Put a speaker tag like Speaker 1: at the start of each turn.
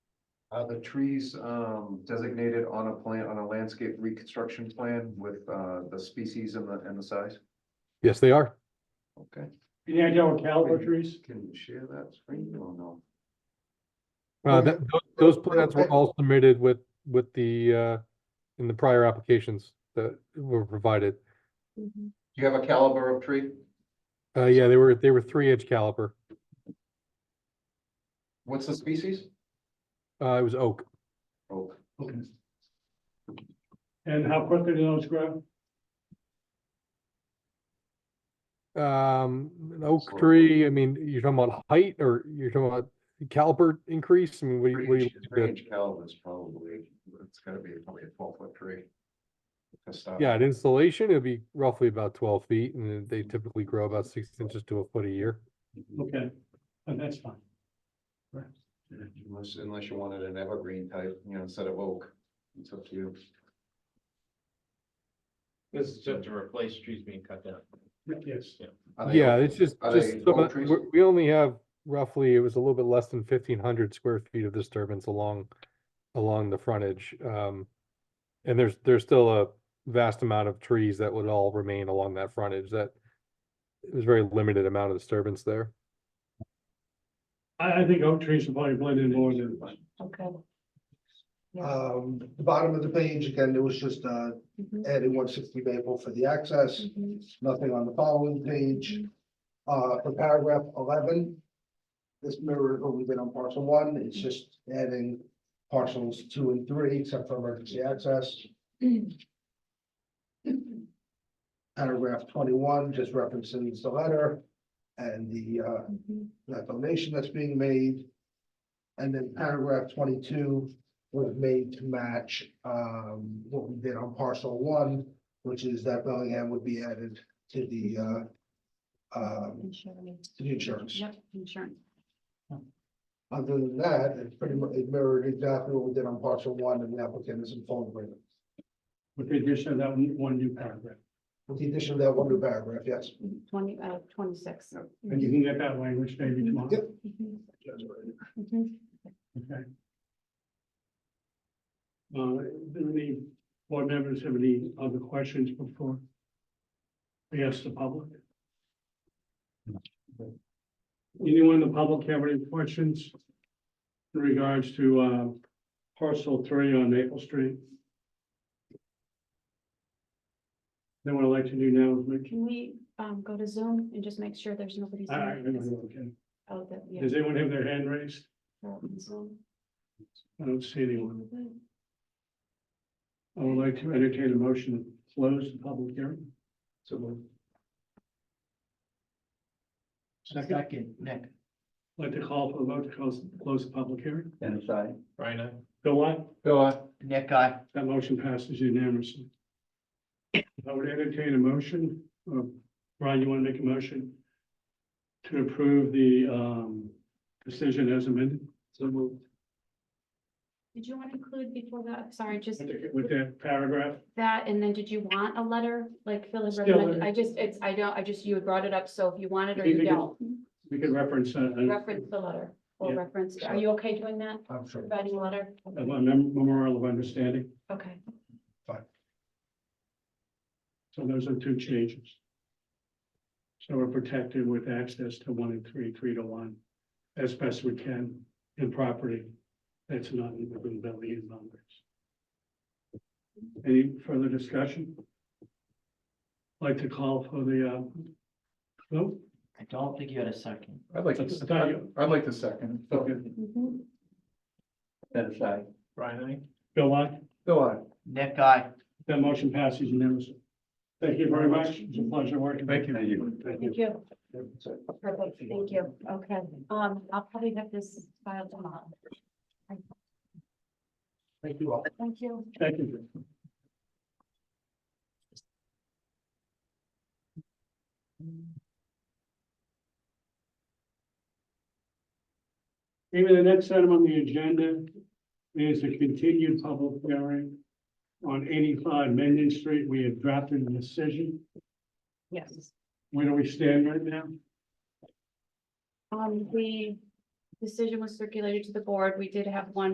Speaker 1: Uh, the trees, um, designated on a plan, on a landscape reconstruction plan with, uh, the species and the, and the size?
Speaker 2: Yes, they are. Uh,
Speaker 1: Okay,
Speaker 3: Any idea what caliber trees?
Speaker 1: can you share that screen or no?
Speaker 2: Uh,
Speaker 1: Okay.
Speaker 2: that, tho- those
Speaker 1: Okay.
Speaker 2: plans were all submitted with, with the, uh, in the prior applications that were provided.
Speaker 1: Do you have a caliber of tree?
Speaker 2: Uh, yeah, they were, they were three inch caliper.
Speaker 1: What's the species?
Speaker 2: Uh, it was oak.
Speaker 1: Oak.
Speaker 3: And how quickly do those grow?
Speaker 2: Um, an oak
Speaker 1: Sort of.
Speaker 2: tree, I mean, you're talking about height or you're talking about caliper increase? I mean, what do you, what do you?
Speaker 1: Range range calibers probably, it's gotta be probably a twelve foot tree. To stop.
Speaker 2: Yeah, at installation, it'd be roughly about twelve feet and then they typically grow about six inches to a foot a year.
Speaker 3: Okay, and that's fine.
Speaker 1: Unless, unless you wanted an evergreen type, you know, instead of oak, it's up to you.
Speaker 4: This is just to replace trees being cut down.
Speaker 3: Yes,
Speaker 1: Are they
Speaker 2: Yeah,
Speaker 1: oak?
Speaker 2: it's just,
Speaker 1: Are
Speaker 2: just,
Speaker 1: they
Speaker 2: some
Speaker 1: oak
Speaker 2: of-
Speaker 1: trees?
Speaker 2: we- we only have roughly, it was a little bit less than fifteen hundred square feet of disturbance along, along the frontage. Um, and there's, there's still a vast amount of trees that would all remain along that frontage that it was very limited amount of disturbance there.
Speaker 3: I, I think oak trees will probably blend in more than.
Speaker 5: Okay. Yeah.
Speaker 6: Um, the bottom of the page, again, there was just, uh,
Speaker 5: Mhm.
Speaker 6: adding one sixty Maple for the access,
Speaker 5: Mhm.
Speaker 6: nothing on the following page. Uh, for paragraph eleven, this mirror only been on parcel one, it's just adding parcels two and three, except for emergency access.
Speaker 5: Mm-hmm.
Speaker 6: Paragraph twenty-one, just references the letter and the, uh,
Speaker 5: Mhm.
Speaker 6: that donation that's being made. And then paragraph twenty-two was made to match um what we did on parcel one, which is that Bellingham would be added to the uh. Um,
Speaker 5: Insurance.
Speaker 6: to the insurance.
Speaker 5: Yep, insurance.
Speaker 6: Other than that, it's pretty much it mirrored exactly what we did on parcel one and the applicant is in full agreement.
Speaker 3: With the addition of that one, one new paragraph,
Speaker 6: With the addition of that one new paragraph, yes.
Speaker 5: Twenty, uh, twenty-six. Mm-hmm.
Speaker 3: and you can get that language maybe tomorrow,
Speaker 6: Yep.
Speaker 5: Mhm. Mhm.
Speaker 3: okay? Uh, do any board members have any other questions before? We ask the public? Anyone in the public have any questions? In regards to, uh, parcel three on Maple Street? Then what I'd like to do now is make,
Speaker 5: Can we, um, go to Zoom and just make sure there's nobody?
Speaker 3: I, I, I don't
Speaker 5: zooming?
Speaker 3: know, okay.
Speaker 5: Oh, that, yeah.
Speaker 3: Does anyone have their hand raised?
Speaker 5: they're on Zoom.
Speaker 3: I don't see anyone. I would like to entertain a motion to close the public hearing. So moved. Second, I'd
Speaker 4: Second, Nick.
Speaker 3: like to call for a vote to close, close the public hearing.
Speaker 4: Dennis, I. Brian, I.
Speaker 3: Bill, aye?
Speaker 1: Go on.
Speaker 4: Nick, I.
Speaker 3: That motion passes unanimously. I would entertain a motion, uh, Brian, you want to make a motion? To approve the, um, decision as amended? So moved.
Speaker 5: Did you want to include before that, sorry, just
Speaker 3: With that paragraph?
Speaker 5: that, and then did you want a letter, like Phil had
Speaker 3: Still,
Speaker 5: recommended?
Speaker 3: uh,
Speaker 5: I just, it's, I don't, I just, you had brought it up, so if you want it or
Speaker 3: You
Speaker 5: you
Speaker 3: could-
Speaker 5: don't,
Speaker 3: We could reference, uh, a
Speaker 5: reference the letter. Or
Speaker 3: Yeah.
Speaker 5: reference, are you okay doing that,
Speaker 6: I'm sure.
Speaker 5: providing a letter?
Speaker 3: a mem- memorial of understanding.
Speaker 5: Okay.
Speaker 3: So those are two changes. So we're protected with access to one and three, three to one, as best we can in property that's not in the Boone Valley in numbers. Any further discussion? Like to call for the, uh, vote?
Speaker 4: I don't think you had a second.
Speaker 1: I'd like
Speaker 3: That's-
Speaker 1: to, I'd- I'd like to second.
Speaker 3: Okay,
Speaker 5: Mhm.
Speaker 4: Dennis, I. Brian, I.
Speaker 3: Bill Locke,
Speaker 1: Go on.
Speaker 4: Nick, I.
Speaker 3: that motion passes unanimously. Thank you very much. It's a pleasure working. with
Speaker 1: Thank you.
Speaker 3: Thank you.
Speaker 5: Thank you. Perfect, thank you. Okay, um, I'll probably have this filed tomorrow.
Speaker 3: Thank you all.
Speaker 5: Thank you.
Speaker 3: Thank you. Maybe the next item on the agenda is a continued public hearing on eighty-five Mendon Street. We have drafted a decision.
Speaker 5: Yes.
Speaker 3: Where do we stand right now?
Speaker 5: Um, the decision was circulated to the board. We did have one